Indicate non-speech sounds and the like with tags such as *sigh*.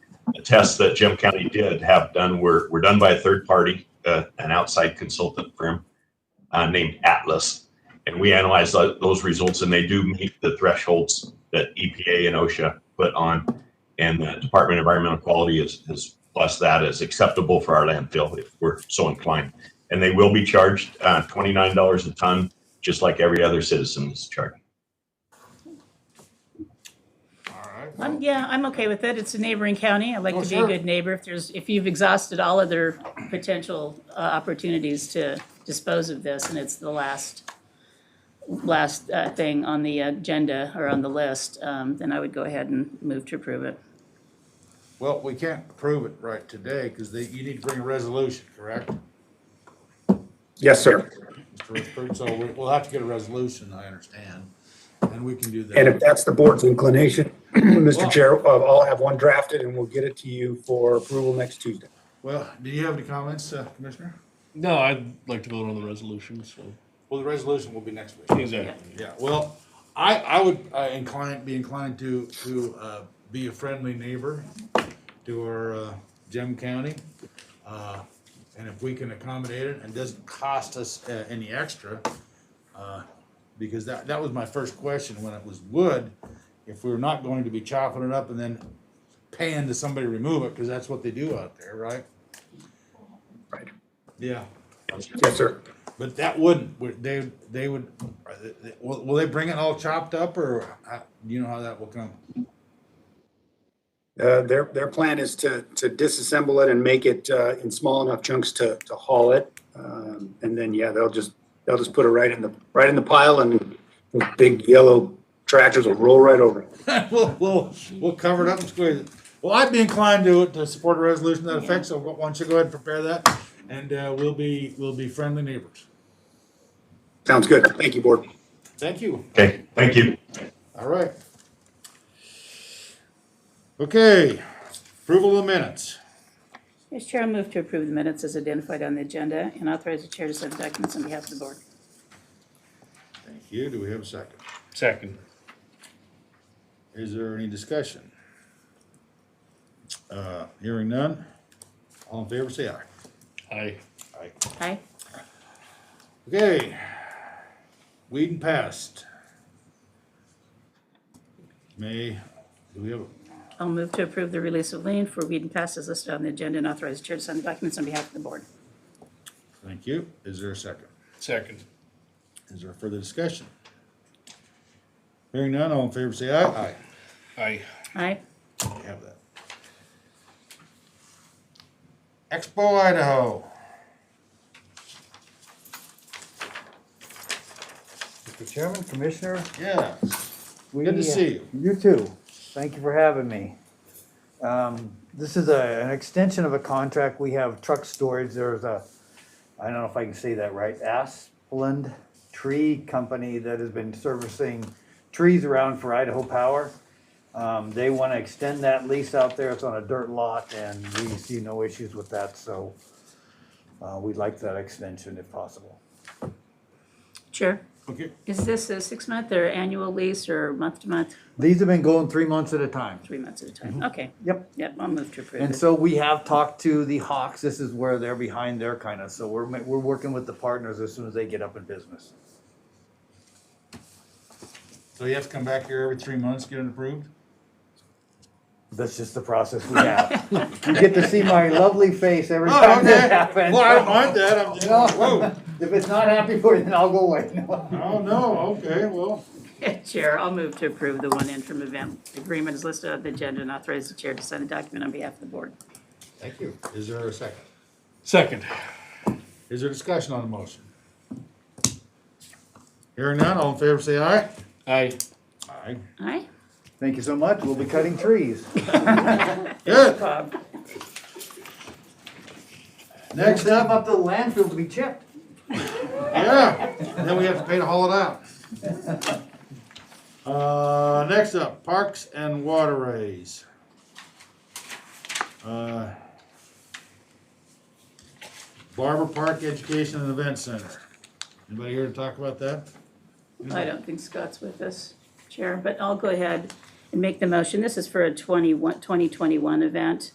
tests that Jim County did have done were, were done by a third party, uh, an outside consultant firm uh, named Atlas. And we analyzed tho- those results and they do meet the thresholds that EPA and OSHA put on. And the Department of Environmental Quality has, has blessed that as acceptable for our landfill if we're so inclined. And they will be charged uh, $29 a ton, just like every other citizen is charged. All right. I'm, yeah, I'm okay with it. It's a neighboring county. I like Oh, to be a sure. good neighbor. If there's, if you've exhausted all other potential uh, opportunities to dispose of this and it's the last, last uh, thing on the agenda or on the list, um, then I would go ahead and move to approve it. Well, we can't approve it right today because they, you need to bring a resolution, correct? Yes, sir. Mr. Recruit, so we- we'll have to get a resolution, I understand, and we can do that. And if that's the board's inclination, *clears throat* Well- Mr. Chair, uh, I'll have one drafted and we'll get it to you for approval next Tuesday. Well, do you have any comments, uh, Commissioner? No, I'd like to vote on the resolution, so. Well, the resolution will be next week. Exactly. Yeah, well, I, I would uh, inclined, be inclined to, to uh, be a friendly neighbor to our uh, Gem County. Uh, And if we can accommodate it and doesn't cost us uh, any extra, uh, because that, that was my first question when it was wood. If we were not going to be chopping it up and then paying to somebody to remove it, because that's what they do out there, right? Right. Yeah. Yes, sir. But that wouldn't, would- they, they would, are they- they- will, will they bring it all chopped up or, uh, you know how that will come? *laughs* Uh, Their, their plan is to, to disassemble it and make it uh, in small enough chunks to, to haul it. Um, And then, yeah, they'll just, they'll just put it right in the, right in the pile and those big yellow tractors will roll right over it. We'll, we'll, we'll cover it up and squeeze it. Well, I'd be inclined to, to support a resolution to that affects, so why don't you go ahead and prepare that? And, uh, we'll be, we'll be friendly neighbors. Sounds good. Thank you, board. Thank you. Okay, thank you. All right. Okay, approval of minutes. Mr. Chair, I move to approve the minutes as identified on the agenda and authorize the chair to send documents on behalf of the board. Thank you. Do we have a second? Second. Is there any discussion? Uh, hearing none. All in favor, say aye. Aye. Aye? Okay. Weed and pest. May, do we have, I'll move to approve the release of lien for weed and pest as listed on the agenda and authorize the chair to send documents on behalf of the board. thank you. Is there a second? Second. Is there further discussion? Hearing none, all in favor, say aye. Aye. Aye? Aye. We have that. Expo Idaho. Mr. Chairman, Commissioner. Yeah. we- uh, Good to see you. You too. Thank you for having me. Um, This is a, an extension of a contract. We have truck storage. There's a, I don't know if I can say that right, Asplund Tree Company that has been servicing trees around for Idaho Power. Um, They want to extend that lease out there. It's on a dirt lot and we see no issues with that, so uh, we'd like that extension if possible. Chair? Okay, Is this a six-month or annual lease or month-to-month, These have been going three months at a time. three months at a time? Okay, Yep. yep, I'll move to approve And it. so we have talked to the Hawks. This is where they're behind their kind of, so we're, ma- we're working with the partners as soon as they get up in business. so you have to come back here every three months, get it approved? That's just the process we *laughs* have. You get to see my lovely face every *laughs* time Oh, okay. this happens. Well, I don't mind that, I'm just, No. whoa, If it's not happy for you, then I'll go away. *laughs* oh, no, okay, well, *laughs* Chair, I'll move to approve the one interim event agreement is listed on the agenda and authorize the chair to sign a document on behalf of the board. thank you. Is there a second? Second. Is there discussion on the motion? Hearing none, all in favor say aye. Aye. Aye. Aye? Thank you so much. We'll be cutting trees. Good, Bob? next Step up, up to the landfill to be chipped. yeah, then we have to pay to haul it out. Uh, next up, parks and waterways. Uh, Barber Park Education and Event Center. Anybody here to talk about that? I don't think Scott's with us, Chair, but I'll go ahead and make the motion. This is for a 21 2021 event.